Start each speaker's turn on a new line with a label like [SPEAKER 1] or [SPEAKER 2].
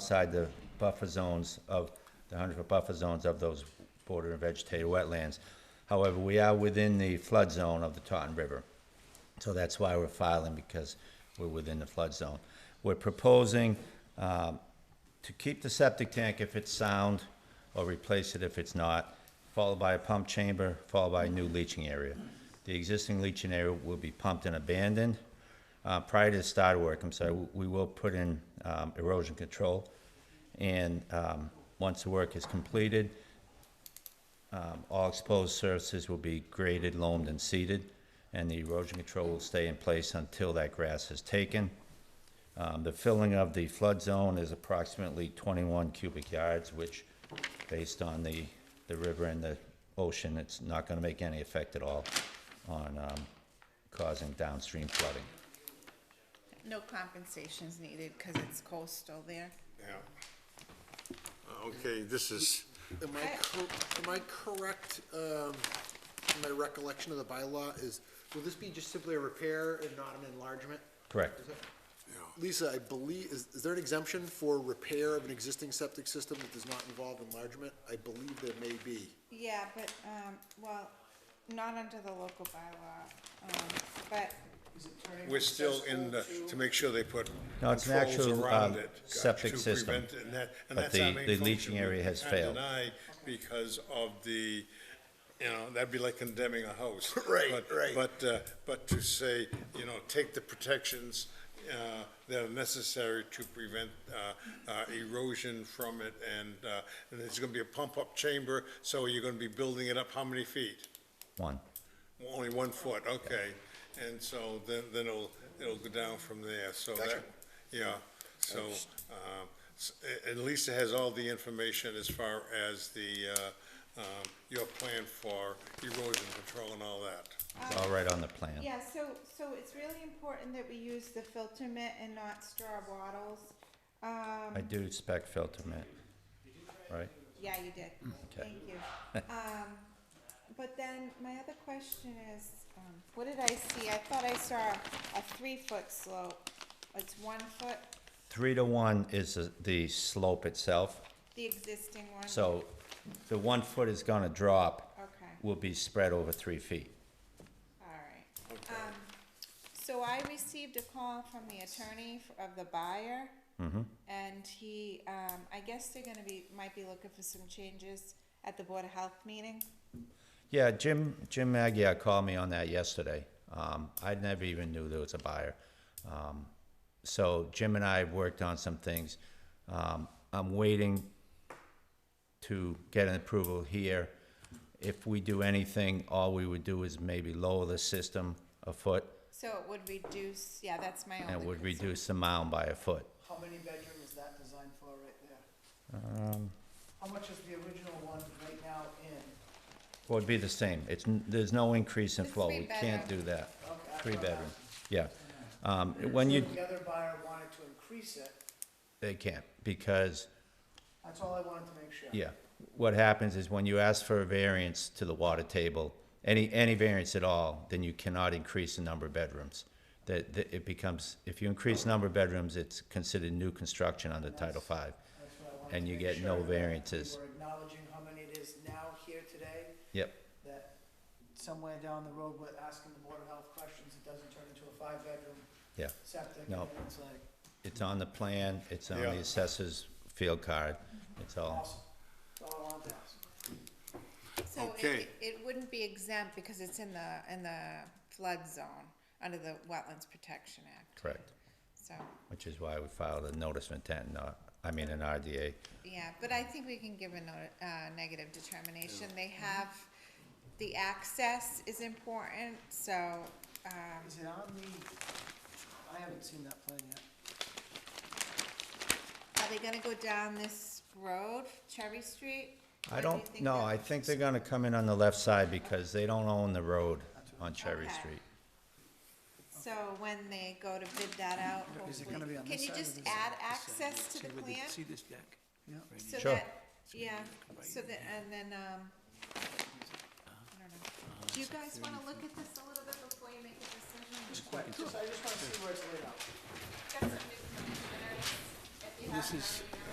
[SPEAKER 1] outside the buffer zones of, the hundred foot buffer zones of those border and vegetated wetlands. However, we are within the flood zone of the Taunton River. So that's why we're filing, because we're within the flood zone. We're proposing um, to keep the septic tank if it's sound, or replace it if it's not, followed by a pump chamber, followed by a new leaching area. The existing leaching area will be pumped and abandoned. Uh, Prior to the start of work, I'm sorry, we- we will put in um, erosion control. And um, once the work is completed, um, All exposed surfaces will be graded, loamed, and seeded, and the erosion control will stay in place until that grass is taken. Um, The filling of the flood zone is approximately 21 cubic yards, which, based on the, the river and the ocean, it's not going to make any effect at all on um, causing downstream flooding.
[SPEAKER 2] No compensation's needed because it's coastal there.
[SPEAKER 3] Yeah. Okay, this is,
[SPEAKER 4] Am I, cor- am I correct, um, in my recollection of the bylaw is, will this be just simply a repair and not an enlargement?
[SPEAKER 1] Correct.
[SPEAKER 4] Is it- Lisa, I believe, is, is there an exemption for repair of an existing septic system that does not involve enlargement? I believe there may be.
[SPEAKER 2] Yeah, but, um, well, not under the local bylaw, um, but
[SPEAKER 3] we're still in the, to make sure they put
[SPEAKER 1] No, it's an
[SPEAKER 3] controls
[SPEAKER 1] actual,
[SPEAKER 3] around
[SPEAKER 1] um,
[SPEAKER 3] it. uh,
[SPEAKER 1] septic
[SPEAKER 3] to
[SPEAKER 1] system,
[SPEAKER 3] prevent it, and that-
[SPEAKER 1] but
[SPEAKER 3] and that's our
[SPEAKER 1] the-
[SPEAKER 3] main
[SPEAKER 1] the
[SPEAKER 3] function.
[SPEAKER 1] leaching area has
[SPEAKER 3] We can't
[SPEAKER 1] failed.
[SPEAKER 3] deny Because of the, you know, that'd be like condemning a house.
[SPEAKER 4] Right,
[SPEAKER 3] But-
[SPEAKER 4] right.
[SPEAKER 3] But, uh, but to say, you know, take the protections uh, that are necessary to prevent uh, uh, erosion from it, and, uh, and there's gonna be a pump-up chamber, so you're gonna be building it up how many feet?
[SPEAKER 1] One.
[SPEAKER 3] Only one foot, okay. And so then, then it'll, it'll go down from there, so that,
[SPEAKER 4] Gotcha.
[SPEAKER 3] yeah. So, um, s- a- and Lisa has all the information as far as the, uh, um, your plan for erosion control and all that.
[SPEAKER 1] It's all right on the plan.
[SPEAKER 2] Yeah, so, so it's really important that we use the filter mitt and not straw wattles. Um,
[SPEAKER 1] I do expect filter mitt, right?
[SPEAKER 2] yeah, you did. Thank you. Um, but then my other question is, um, what did I see? I thought I saw a three-foot slope. It's one foot,
[SPEAKER 1] Three to one is the- the slope itself.
[SPEAKER 2] the existing one?
[SPEAKER 1] So the one foot is gonna drop.
[SPEAKER 2] Okay.
[SPEAKER 1] Will be spread over three feet.
[SPEAKER 2] Alright. Um, so I received a call from the attorney f- of the buyer.
[SPEAKER 1] Mm-hmm.
[SPEAKER 2] And he, um, I guess they're gonna be, might be looking for some changes at the Board of Health meeting.
[SPEAKER 1] Yeah, Jim, Jim Maggia called me on that yesterday. Um, I never even knew there was a buyer. Um, so Jim and I have worked on some things. Um, I'm waiting to get an approval here. If we do anything, all we would do is maybe lower the system a foot
[SPEAKER 2] So it would reduce, yeah, that's my
[SPEAKER 1] and it
[SPEAKER 2] only
[SPEAKER 1] would
[SPEAKER 2] concern.
[SPEAKER 1] reduce the mound by a foot.
[SPEAKER 5] How many bedroom is that designed for right there?
[SPEAKER 1] Um,
[SPEAKER 5] How much is the original one right now in?
[SPEAKER 1] Well, it'd be the same. It's, n- there's no increase in
[SPEAKER 2] The
[SPEAKER 1] flow. We can't do
[SPEAKER 2] three-bedroom.
[SPEAKER 1] that.
[SPEAKER 5] Okay, I
[SPEAKER 1] Three
[SPEAKER 5] thought that-
[SPEAKER 1] bedroom, yeah. Um, when
[SPEAKER 5] So
[SPEAKER 1] you,
[SPEAKER 5] The other buyer wanted to increase it,
[SPEAKER 1] they can't, because,
[SPEAKER 5] that's all I wanted to make sure.
[SPEAKER 1] yeah, what happens is when you ask for a variance to the water table, any, any variance at all, then you cannot increase the number of bedrooms. That, that it becomes, if you increase the number of bedrooms, it's considered new construction under Title Five.
[SPEAKER 5] That's what I wanted
[SPEAKER 1] And
[SPEAKER 5] to
[SPEAKER 1] you
[SPEAKER 5] make
[SPEAKER 1] get no
[SPEAKER 5] sure that
[SPEAKER 1] variances.
[SPEAKER 5] We were acknowledging how many it is now here today,
[SPEAKER 1] Yep,
[SPEAKER 5] that somewhere down the road, we're asking the Board of Health questions, it doesn't turn into a five-bedroom
[SPEAKER 1] yeah.
[SPEAKER 5] septic.
[SPEAKER 1] No.
[SPEAKER 5] And it's like,
[SPEAKER 1] It's on the plan, it's on
[SPEAKER 3] Yeah.
[SPEAKER 1] the assessor's field card,
[SPEAKER 2] Mm-hmm.
[SPEAKER 1] it's all,
[SPEAKER 5] awesome, that's all I wanted to ask.
[SPEAKER 2] So
[SPEAKER 3] Okay.
[SPEAKER 2] it, it wouldn't be exempt because it's in the, in the flood zone, under the Wetlands Protection Act,
[SPEAKER 1] correct.
[SPEAKER 2] so,
[SPEAKER 1] Which is why we filed a notice of intent, not, I mean, an RDA.
[SPEAKER 2] yeah, but I think we can give a no, uh, negative determination, they have, the access is important, so, um,
[SPEAKER 5] Is it on the, I haven't seen that plan yet.
[SPEAKER 2] are they gonna go down this road, Cherry Street?
[SPEAKER 1] I
[SPEAKER 2] Or do you
[SPEAKER 1] don't,
[SPEAKER 2] think
[SPEAKER 1] no,
[SPEAKER 2] they'll-
[SPEAKER 1] I think they're gonna come in on the left side because they don't own the road on Cherry
[SPEAKER 2] Okay.
[SPEAKER 1] Street.
[SPEAKER 2] So when they go to bid that out,
[SPEAKER 6] Is it gonna
[SPEAKER 2] hopefully,
[SPEAKER 6] be on
[SPEAKER 2] can
[SPEAKER 6] this
[SPEAKER 2] you
[SPEAKER 6] side or
[SPEAKER 2] just
[SPEAKER 6] this side?
[SPEAKER 2] add
[SPEAKER 6] This side,
[SPEAKER 2] access to
[SPEAKER 6] see
[SPEAKER 2] the
[SPEAKER 6] where
[SPEAKER 2] plan?
[SPEAKER 6] See this deck?
[SPEAKER 5] Yeah.
[SPEAKER 2] So
[SPEAKER 1] Sure.
[SPEAKER 2] that, yeah, so that, and then, um, I don't know. Do you guys wanna look at this a little bit before you make a decision?
[SPEAKER 5] Quick, just, I just wanna see where it's laid out.
[SPEAKER 2] Got some new commissioners, if you
[SPEAKER 6] This
[SPEAKER 2] haven't
[SPEAKER 6] is,
[SPEAKER 2] already